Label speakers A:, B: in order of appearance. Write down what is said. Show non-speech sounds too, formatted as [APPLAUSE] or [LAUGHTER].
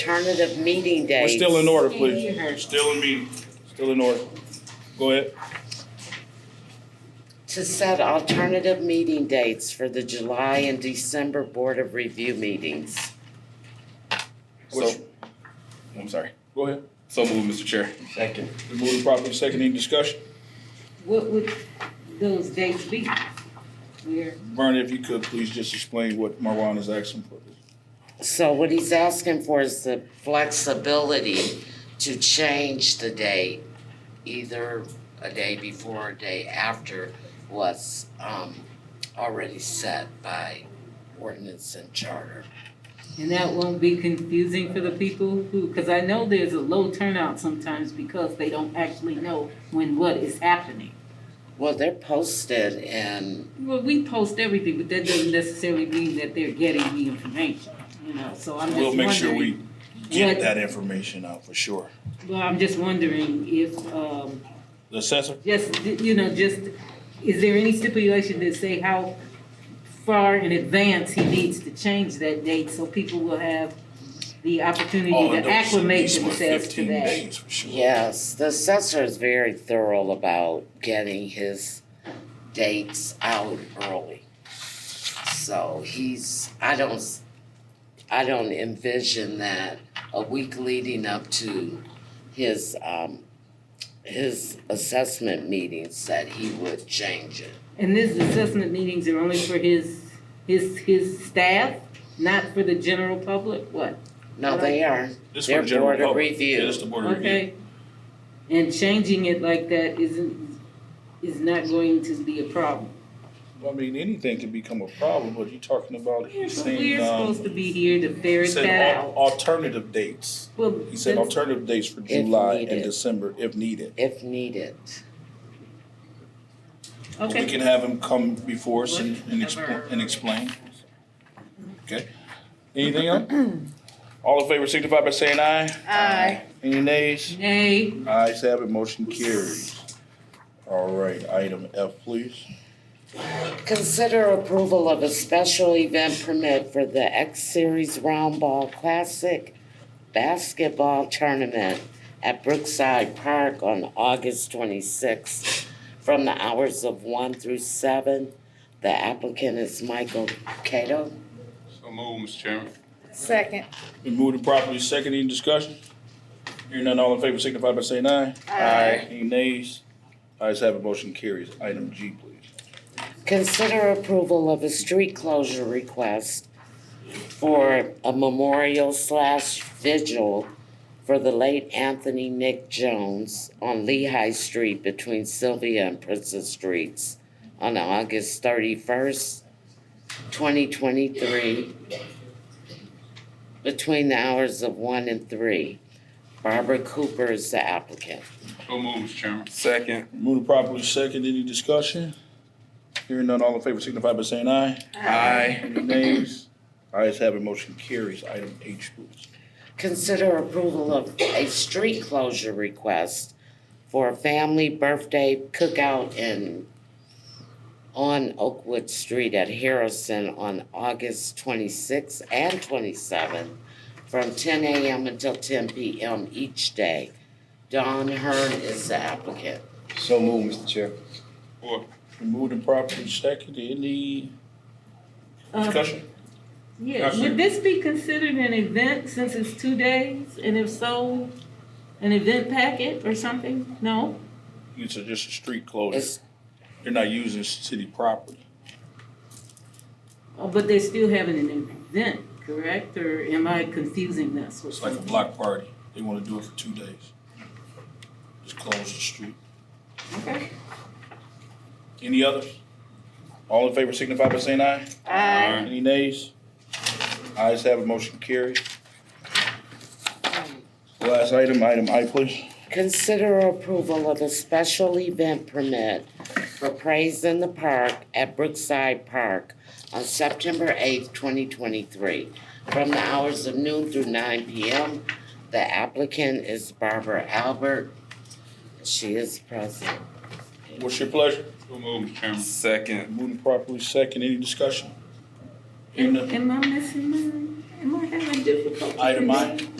A: alternative meeting
B: We're
A: dates.
B: still in order, please. Still in meeting, still in order. Go ahead.
A: To set alternative meeting dates for the July and December Board of Review meetings.
B: Which-
C: So, I'm sorry.
B: Go ahead.
C: So moved, Mr. Chair.
D: Second.
B: We move the property second, any discussion?
E: What would those dates be? Where,
B: Vernon, if you could, please just explain what Marwan is asking for.
A: So what he's asking for is the flexibility to change the date, either a day before or a day after was um already set by ordinance and charter.
E: and that won't be confusing for the people who, because I know there's a low turnout sometimes because they don't actually know when what is happening.
A: Well, they're posted and
E: Well, we post everything, but that doesn't necessarily mean that they're getting the information, you know, so I'm just
B: We'll
E: wondering.
B: make sure we get
E: what-
B: that information out for sure.
E: Well, I'm just wondering if, um,
B: The assessor?
E: Just, you know, just, is there any stipulation that say how far in advance he needs to change that date so people will have the opportunity
B: All
E: to
B: adults
E: acclimate
B: should be somewhere
E: themselves to
B: 15
E: that?
B: days for sure.
A: Yes, the assessor is very thorough about getting his dates out early. So he's, I don't, s- I don't envision that a week leading up to his, um, his assessment meetings that he would change it.
E: And these assessment meetings are only for his, his, his staff, not for the general public, what?
A: No, they are,
B: This is for
A: they're
B: the general
A: board of
B: public.
A: review.
B: Yeah, this is the board of review.
E: Okay? And changing it like that isn't, is not going to be a problem.
B: I mean, anything can become a problem, but you're talking about,
E: We're
B: he's saying,
E: supposed to
B: um,
E: be here to ferret that
B: said al-
E: out.
B: alternative dates.
E: Well,
B: He said
E: that's-
B: alternative dates for July and
A: needed.
B: December if needed.
A: If needed.
B: But
E: okay.
B: We can have him come before us and, and
E: Whatever.
B: expl- and explain. Okay? Anything else?
F: [CLEARS THROAT]
B: All in favor signify by saying aye.
F: Aye.
B: Any nays?
E: Nay.
B: Ayes have it, motion carries. All right, item F, please.
A: Consider approval of a special event permit for the X Series Round Ball Classic Basketball Tournament at Brookside Park on August twenty-sixth from the hours of one through seven. The applicant is Michael Cato.
C: So moved, Mr. Chairman.
F: Second.
B: Been moved and properly second, any discussion? Hearing none, all in favor signify by saying aye.
F: Aye.
B: Any nays? Ayes have it, motion carries. Item G, please.
A: Consider approval of a street closure request for a memorial slash vigil for the late Anthony Nick Jones on Lehigh Street between Sylvia and Princess Streets on August thirty-first, twenty twenty-three, between the hours of one and three. Barbara Cooper is the applicant.
C: So moved, Mr. Chairman.
D: Second.
B: Moved and properly second, any discussion? Hearing none, all in favor signify by saying aye.
D: Aye.
B: Any nays? Ayes have it, motion carries. Item H, please.
A: Consider approval of a street closure request for a family birthday cookout in, on Oakwood Street at Harrison on August twenty-sixth and twenty-seventh from ten AM until ten PM each day. Don Hearn is the applicant.
D: So moved, Mr. Chair.
C: Four.
B: Been moved and properly second, any
E: Um,
B: discussion?
E: Yeah,
B: Yes, sir.
E: would this be considered an event since it's two days? And if so, an event packet or something? No?
B: It's a- just a street closure.
A: It's,
B: They're not using city property.
E: Oh, But they're still having an event, correct? Or am I confusing this with
B: It's like a
E: something?
B: block party. They want to do it for two days. Just close the street.
E: Okay.
B: Any others? All in favor signify by saying aye.
F: Aye.
B: Any nays? Ayes have it, motion carries. Last item, item I, please.
A: Consider approval of a special event permit for Praise in the Park at Brookside Park on September eighth, twenty twenty-three, from the hours of noon through nine PM. The applicant is Barbara Albert. She is present.
B: What's your pleasure?
C: So moved, Mr. Chairman.
D: Second.
B: Moving properly second, any discussion? Hearing
E: Am
B: none.
E: am I missing mine? Am I having difficulty?
B: Item I.